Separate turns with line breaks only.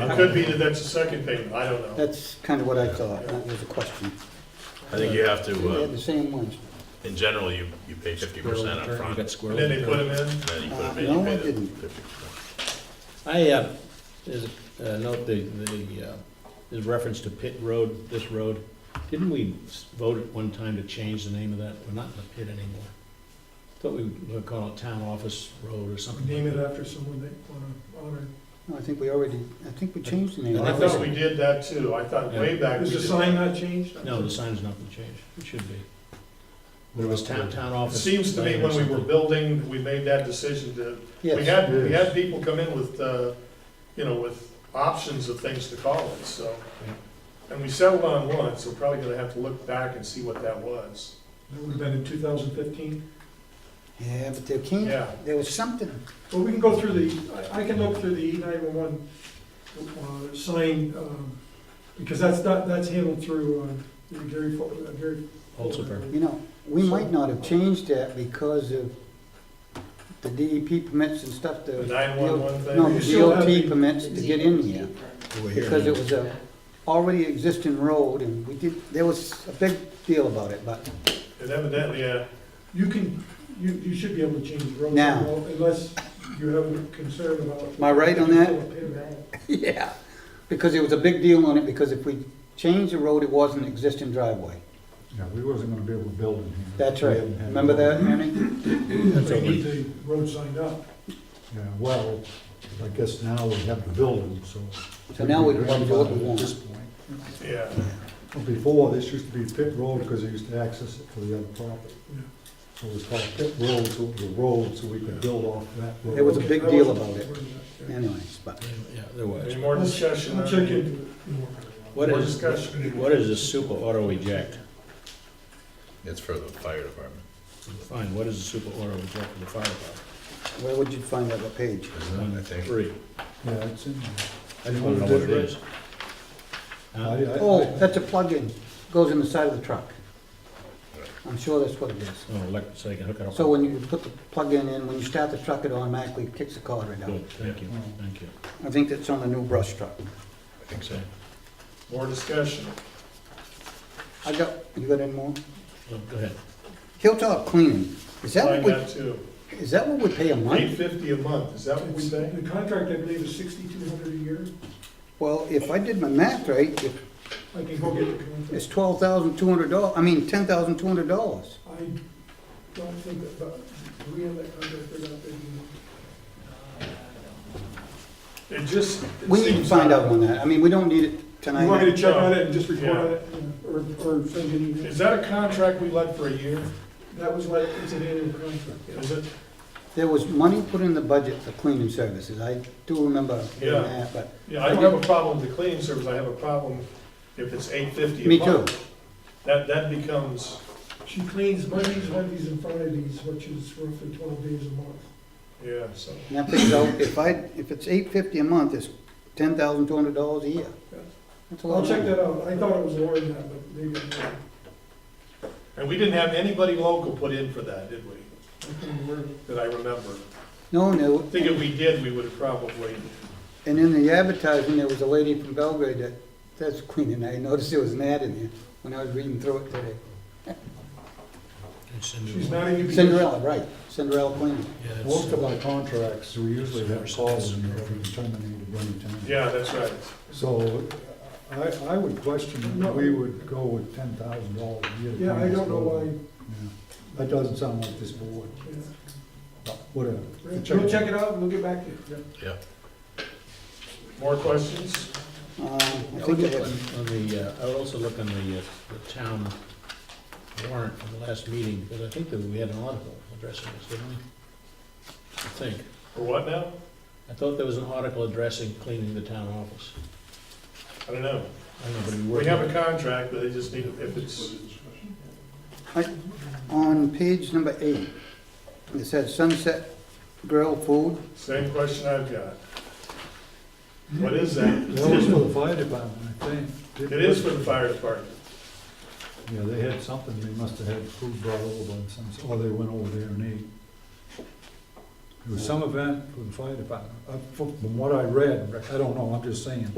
It could be that that's the second payment, I don't know.
That's kind of what I thought, that was a question.
I think you have
They
to,
had
uh,
the same ones.
in general, you, you pay fifty percent
You
upfront,
got
and
squirrel.
And then they put them in,
then you put
Uh,
them in,
no,
you
I
pay the
didn't.
fifty percent.
I, uh, there's a uh, note, the, the, uh, there's reference to Pitt Road, this road. Didn't we s- vote at one time to change the name of that? We're not in the pit anymore. Thought we were calling it Town Office Road or something
Name
like
it
that.
after someone they want to honor.
No, I think we already, I think we changed the name.
I thought we did that too, I thought way back we
Is the
did.
sign
that.
not changed?
No, the sign's not been changed. It should be. But it was Town, Town
It
Office.
seems to me when we were building, we made that decision to, we
Yes,
had, we had people come in with, uh, you know, with options of things to call it, so. And we settled on one, so we're probably gonna have to look back and see what that was.
That would have been in 2015.
yeah, but there can't,
Yeah,
there was something,
Well, we can go through the, I- I can look through the E E911 uh, sign, um, because that's, not- that's handled through uh, Gary, Fo- uh, Gary.
Holzberg.
you know, we might not have changed that because of the DEP permits and stuff,
the
the,
nine-one-one
no,
thing.
You still have
the E
the-
DOT permits to get in here. Because it was a already existing road and we did, there was a big deal about it, but
And evidently, uh, yeah,
You can, you, you should be able to change roads.
Now.
Unless you have a concern about.
Am I right on that?
that?
Yeah, because it was a big deal on it, because if we changed the road, it was an existing driveway.
Yeah, we wasn't gonna be able to build in here.
That's
We
right.
haven't had-
Remember that, Manny?
So you need the road signed up.
Yeah, well, I guess now we have the building, so.
So now we can do what we
At this
want.
point.
yeah.
But Before, this used to be Pit Road, because they used to access it for the other property. So it was called Pit Road, so it was a road, so we could build off that road.
It was a
Okay,
big
I
deal
wasn't
about it.
aware of that, yeah.
Anyways, but
Yeah, there was.
Any more discussion?
I'll
on
check
the-
into it.
What
More
is,
discussion.
what is this super auto eject?
It's for the fire department,
Fine, what is a super auto eject for the fire department?
where would you find that, what page?
isn't it, I think?
Three.
Yeah, it's in there.
I just wanna know what it is. Huh?
I- I-
Oh, that's a plug-in, goes in the side of the truck. I'm sure that's what it is.
Oh, like, so they can hook it up.
So when you put the plug-in in, when you start the truck, it automatically kicks the car right out.
Good, thank you, thank you.
I think that's on the new brush truck.
I think so.
More discussion.
I got, you got any more?
Oh, Go ahead.
Hilltop cleaning, is that
Find
what
that too.
we, is that what we pay a
Eight
month?
fifty a month, is that what we pay?
The contract, I believe, is sixty-two hundred a year.
Well, if I did my math right, if
I can go get the contract.
It's twelve thousand two hundred dollars, I mean, ten thousand two hundred dollars.
I don't think that, but we have that contract for that big.
It just. it
We need to
seems
find
not-
out on that, I mean, we don't need it
You want me
tonight.
to check on it and just report on
Yeah.
it, or, or send you an email?
Is that a contract we let for a year?
That was like, it's an annual contract, yeah.
Is it?
There was money put in the budget for cleaning services, I do remember hearing
Yeah.
that, but,
Yeah, I don't have a problem with the cleaning service, I have a problem if it's eight fifty
Me
a
too.
month. That, that becomes,
She cleans Mondays, Wednesdays, and Fridays, which is roughly twelve days a month.
yeah, so,
and that brings out, if I, if it's eight fifty a month, it's ten thousand two hundred dollars a year.
Yeah.
That's a lot
I'll
of
check
money.
that out, I thought it was lower than that, but maybe I'm wrong.
and we didn't have anybody local put in for that, did we?
I couldn't remember.
That I remember.
No,
I think
no,
if we did, we would have probably,
and in the advertising, there was a lady from Belgrade that, that's cleaning, I noticed there was an ad in there when I was reading through it today.
And send
She's
you-
not a UPS.
Cinderella, right, Cinderella cleaning.
Yeah, it's-
Most of our contracts, we usually have calls in there if we terminate at any time.
yeah, that's right.
So I, I would question,
No.
if we would go with ten thousand dollars a year. to
Yeah, I
clean this
don't know
building.
why,
Yeah, That doesn't sound like this board,
yeah.
but whatever.
We'll check it out, and we'll get back to you.
Yeah.
More questions?
Um, I
I
think
would
it
look
was.
on on the, uh, I would also look on the, uh, the town warrant from the last meeting, because I think that we had an article addressing this, didn't we? I think.
For what now?
I thought there was an article addressing cleaning the town office.
I don't know.
I don't know, but we were.
We have a contract, but they just need, if it's,
I- On page number eight, it says Sunset Grill Food.
same question I've got. What is that?
That was for the fire department, I think.
It is for the fire department.
Yeah, they had Oh, something, they must have had food brought over by some, or they went over there and ate. It was some event for the fire department, Uh, from from what I read, I don't know, I'm just saying.